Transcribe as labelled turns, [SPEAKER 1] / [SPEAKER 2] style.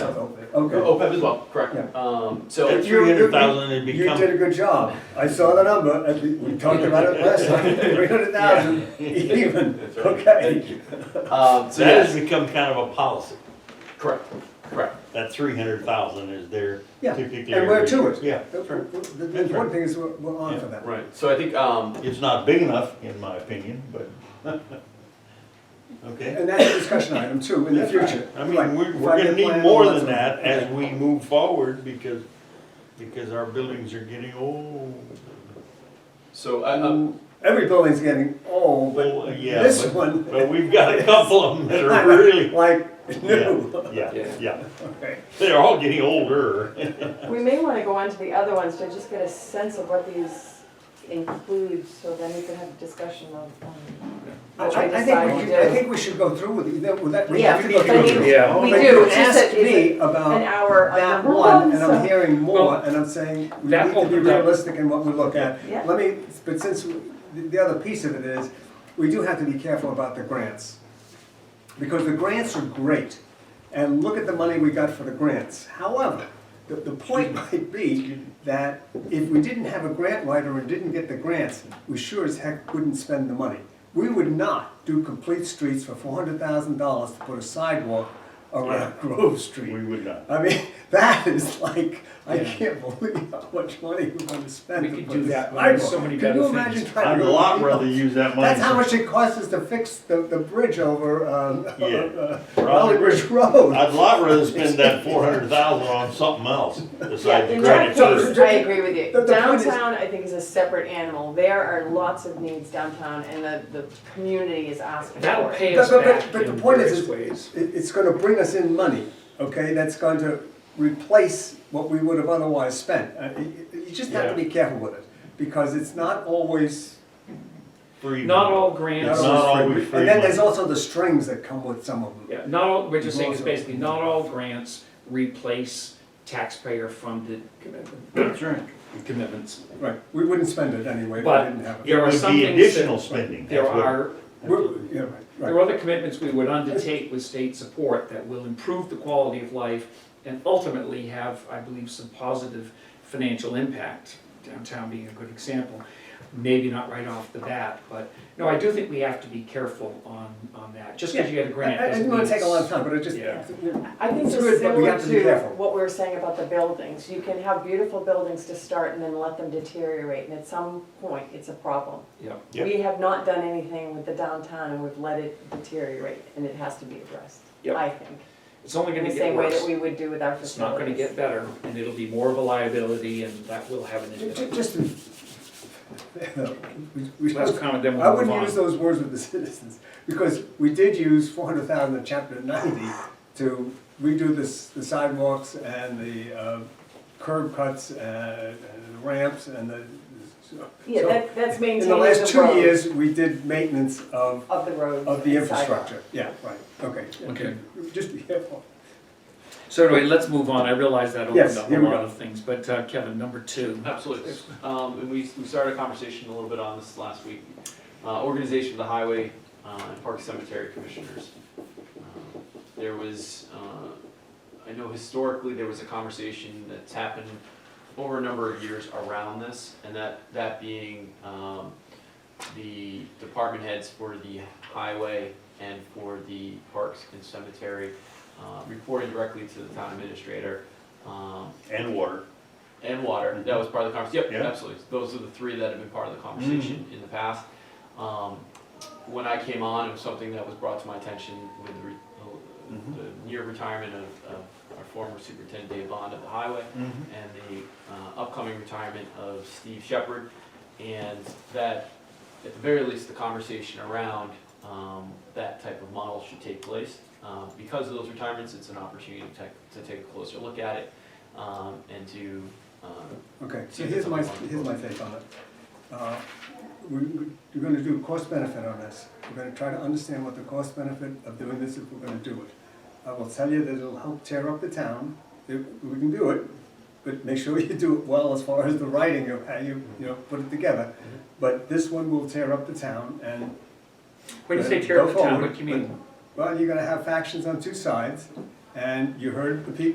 [SPEAKER 1] Okay.
[SPEAKER 2] OPEB Oh, as well, correct.
[SPEAKER 1] Yeah.
[SPEAKER 2] Um,
[SPEAKER 3] At
[SPEAKER 2] So,
[SPEAKER 3] Oh, three hundred thousand, it'd
[SPEAKER 1] You
[SPEAKER 3] become,
[SPEAKER 1] did a good job. I saw the number, and we- we talked about it last time, three hundred thousand even,
[SPEAKER 4] That's right.
[SPEAKER 1] okay.
[SPEAKER 2] um, so
[SPEAKER 3] that
[SPEAKER 2] yes,
[SPEAKER 3] has become kind of a policy.
[SPEAKER 2] correct, correct.
[SPEAKER 3] That three hundred thousand is there
[SPEAKER 1] Yeah,
[SPEAKER 3] typically.
[SPEAKER 1] and we're
[SPEAKER 3] every-
[SPEAKER 1] to it.
[SPEAKER 3] Yeah,
[SPEAKER 1] The the- the one thing is, we're we're on for that.
[SPEAKER 2] Right, so I think, um,
[SPEAKER 3] it's not big enough, in my opinion, but, okay.
[SPEAKER 1] And that's a discussion item too, in the
[SPEAKER 3] That's right.
[SPEAKER 1] future.
[SPEAKER 3] I
[SPEAKER 1] Right.
[SPEAKER 3] mean, we're, we're
[SPEAKER 1] Five-year
[SPEAKER 3] gonna need
[SPEAKER 1] plan,
[SPEAKER 3] more
[SPEAKER 1] all
[SPEAKER 3] than
[SPEAKER 1] stuff.
[SPEAKER 3] that as
[SPEAKER 1] Okay.
[SPEAKER 3] we move forward, because, because our buildings are getting old.
[SPEAKER 2] so I, um,
[SPEAKER 1] Uh, Every building's getting old,
[SPEAKER 3] Well,
[SPEAKER 1] but
[SPEAKER 3] yeah,
[SPEAKER 1] this
[SPEAKER 3] but-
[SPEAKER 1] one.
[SPEAKER 3] But we've got a couple of them that are really,
[SPEAKER 1] Like, new.
[SPEAKER 3] yeah, yeah,
[SPEAKER 2] Yeah.
[SPEAKER 3] yeah,
[SPEAKER 1] Okay.
[SPEAKER 3] they're all getting older.
[SPEAKER 5] We may want to go on to the other ones to just get a sense of what these include, so then we can have a discussion of, um,
[SPEAKER 1] I,
[SPEAKER 5] what we
[SPEAKER 1] I- I think
[SPEAKER 5] decide
[SPEAKER 1] we
[SPEAKER 5] to
[SPEAKER 1] should, I
[SPEAKER 5] do.
[SPEAKER 1] think we should go through with, it. that, with that, we
[SPEAKER 5] Yeah,
[SPEAKER 1] have to go
[SPEAKER 5] but
[SPEAKER 1] through.
[SPEAKER 5] I
[SPEAKER 1] it.
[SPEAKER 5] mean,
[SPEAKER 3] Yeah.
[SPEAKER 5] We
[SPEAKER 1] But
[SPEAKER 5] do,
[SPEAKER 1] You
[SPEAKER 5] it's just
[SPEAKER 1] asked
[SPEAKER 5] that it's
[SPEAKER 1] me
[SPEAKER 5] an
[SPEAKER 1] about
[SPEAKER 5] hour of
[SPEAKER 1] that
[SPEAKER 5] number
[SPEAKER 1] one, and I'm
[SPEAKER 5] so-
[SPEAKER 1] hearing more,
[SPEAKER 2] Well,
[SPEAKER 1] and I'm saying, we
[SPEAKER 2] that
[SPEAKER 1] need to be
[SPEAKER 2] opens up-
[SPEAKER 1] realistic in what we look at.
[SPEAKER 5] Yeah.
[SPEAKER 1] Let me, but since, we- the, the other piece of it is, we do have to be careful about the grants. Because the grants are great, and look at the money we got for the grants. However, the, the point might be that if we didn't have a grant writer and didn't get the grants, we sure as heck wouldn't spend the money. We would not do complete streets for four hundred thousand dollars to put a sidewalk around Grove Street.
[SPEAKER 3] We would not.
[SPEAKER 1] I mean, that is like, I can't believe how much money we're gonna spend.
[SPEAKER 6] We
[SPEAKER 1] to
[SPEAKER 6] could
[SPEAKER 1] put
[SPEAKER 6] do
[SPEAKER 1] a
[SPEAKER 6] that when there's
[SPEAKER 1] sidewalk.
[SPEAKER 6] so many
[SPEAKER 1] Can you
[SPEAKER 6] better
[SPEAKER 1] imagine
[SPEAKER 6] things.
[SPEAKER 1] trying
[SPEAKER 3] I'd
[SPEAKER 1] to
[SPEAKER 3] a
[SPEAKER 1] go-
[SPEAKER 3] lot rather use that money.
[SPEAKER 1] That's how much it costs us to fix the, the bridge over, um,
[SPEAKER 3] Yeah.
[SPEAKER 1] Valley Ridge Road.
[SPEAKER 3] I'd lot rather spend that four hundred thousand on something else
[SPEAKER 5] Yeah,
[SPEAKER 3] besides the
[SPEAKER 5] in
[SPEAKER 3] credit
[SPEAKER 5] that
[SPEAKER 3] to
[SPEAKER 5] case,
[SPEAKER 1] too.
[SPEAKER 5] I agree with
[SPEAKER 1] The-
[SPEAKER 5] you.
[SPEAKER 1] the point is-
[SPEAKER 5] Downtown, I think, is a separate animal. There are lots of needs downtown, and the, the community is asking
[SPEAKER 6] That'll
[SPEAKER 5] for it.
[SPEAKER 6] pay us
[SPEAKER 1] But- but-
[SPEAKER 6] back
[SPEAKER 1] but the
[SPEAKER 6] in
[SPEAKER 1] point is-
[SPEAKER 6] various ways.
[SPEAKER 1] It, it's gonna bring us in money, okay, that's going to replace what we would have otherwise spent. Uh, You you- you just have to be careful with it, because it's not always
[SPEAKER 3] free.
[SPEAKER 6] Not all
[SPEAKER 1] Not
[SPEAKER 6] grants,
[SPEAKER 3] It's not
[SPEAKER 1] always
[SPEAKER 3] always
[SPEAKER 1] free.
[SPEAKER 3] free
[SPEAKER 1] And then
[SPEAKER 3] money.
[SPEAKER 1] there's also the strings that come with some of them.
[SPEAKER 6] yeah, not all, we're just saying is basically, not all grants replace taxpayer-funded commitment-
[SPEAKER 3] That's right.
[SPEAKER 6] commitments.
[SPEAKER 1] Right, we wouldn't spend it anyway if we
[SPEAKER 6] But-
[SPEAKER 1] didn't have it.
[SPEAKER 3] It
[SPEAKER 6] There are
[SPEAKER 3] would
[SPEAKER 6] some
[SPEAKER 3] be
[SPEAKER 6] things that-
[SPEAKER 3] additional spending.
[SPEAKER 6] There
[SPEAKER 3] That's what-
[SPEAKER 6] are,
[SPEAKER 1] We're- Yeah, right, right.
[SPEAKER 6] there are other commitments we would undertake with state support that will improve the quality of life and ultimately have, I believe, some positive financial impact, downtown being a good example. Maybe not right off the bat, but, no, I do think we have to be careful on, on that. Just because you get a grant
[SPEAKER 1] I- I
[SPEAKER 6] doesn't
[SPEAKER 1] didn't
[SPEAKER 6] mean
[SPEAKER 1] want to take a
[SPEAKER 6] it's-
[SPEAKER 1] lot of time, but I just,
[SPEAKER 6] Yeah.
[SPEAKER 5] I think
[SPEAKER 1] It's
[SPEAKER 5] it's
[SPEAKER 1] good, but we
[SPEAKER 5] similar
[SPEAKER 1] have to be
[SPEAKER 5] to
[SPEAKER 1] careful.
[SPEAKER 5] what we were saying about the buildings. You can have beautiful buildings to start and then let them deteriorate, and at some point, it's a problem.
[SPEAKER 6] Yeah.
[SPEAKER 3] Yep.
[SPEAKER 5] We have not done anything with the downtown, and we've let it deteriorate, and it has to be addressed,
[SPEAKER 6] Yep.
[SPEAKER 5] I think.
[SPEAKER 6] It's only
[SPEAKER 5] In
[SPEAKER 6] gonna
[SPEAKER 5] the
[SPEAKER 6] get
[SPEAKER 5] same way that
[SPEAKER 6] worse.
[SPEAKER 5] we would do with our facilities.
[SPEAKER 6] It's not gonna get better, and it'll be more of a liability, and that will have an
[SPEAKER 1] ju- ju-
[SPEAKER 6] impact.
[SPEAKER 1] just, to- we- we-
[SPEAKER 6] Last comment, then
[SPEAKER 1] I
[SPEAKER 6] we'll move
[SPEAKER 1] wouldn't use
[SPEAKER 6] on.
[SPEAKER 1] those words with the citizens, because we did use four hundred thousand in chapter ninety to redo this, the sidewalks and the uh, curb cuts and and the ramps and the. so-
[SPEAKER 5] Yeah,
[SPEAKER 1] so
[SPEAKER 5] that, that's
[SPEAKER 1] In
[SPEAKER 5] maintaining the
[SPEAKER 1] the
[SPEAKER 5] road.
[SPEAKER 1] last two years, we did maintenance of,
[SPEAKER 5] Of the roads.
[SPEAKER 1] of the
[SPEAKER 5] and sidewalks.
[SPEAKER 1] infrastructure, yeah, right, okay.
[SPEAKER 6] Okay.
[SPEAKER 1] Just be careful.
[SPEAKER 6] So anyway, let's move on. I realize that
[SPEAKER 1] Yes,
[SPEAKER 6] opened up a
[SPEAKER 1] here we go.
[SPEAKER 6] lot of things, but uh, Kevin, number two.
[SPEAKER 2] absolutely. Um, and we, we started a conversation a little bit on this last week. Uh, organization of the highway, uh, and park cemetery commissioners. Um, There was, uh, I know historically there was a conversation that's happened over a number of years around this, and that, that being, um, the department heads for the highway and for the parks and cemetery, uh, reporting directly to the town administrator, um,
[SPEAKER 3] And water.
[SPEAKER 2] and water, that was part of the conversation, yep,
[SPEAKER 3] Yeah.
[SPEAKER 2] absolutely, those are the three that have been part of the conversation in the past. Um, When I came on, it was something that was brought to my attention with the, re-
[SPEAKER 3] Mhm.
[SPEAKER 2] the near retirement of, of our former superintendent Dave Bond of the highway, and the uh, upcoming retirement of Steve Shepard, and that, at the very least, the conversation around um, that type of model should take place. Um, Because of those retirements, it's an opportunity to take, to take a closer look at it, um, and to um,
[SPEAKER 1] Okay, so
[SPEAKER 2] See if
[SPEAKER 1] here's
[SPEAKER 2] it's
[SPEAKER 1] my,
[SPEAKER 2] something
[SPEAKER 1] here's my take on it. Uh, We, we- we're gonna do cost benefit on this. We're gonna try to understand what the cost benefit of doing this if we're gonna do it. I will tell you that it'll help tear up the town, It- we can do it, but make sure you do it well as far as the writing of how you, you know, put it together.
[SPEAKER 6] Mm-hmm.
[SPEAKER 1] But this one will tear up the town and,
[SPEAKER 6] When you say
[SPEAKER 1] Go
[SPEAKER 6] tear up the town,
[SPEAKER 1] forward,
[SPEAKER 6] what do you mean?
[SPEAKER 1] well, you're gonna have factions on two sides. And you heard the people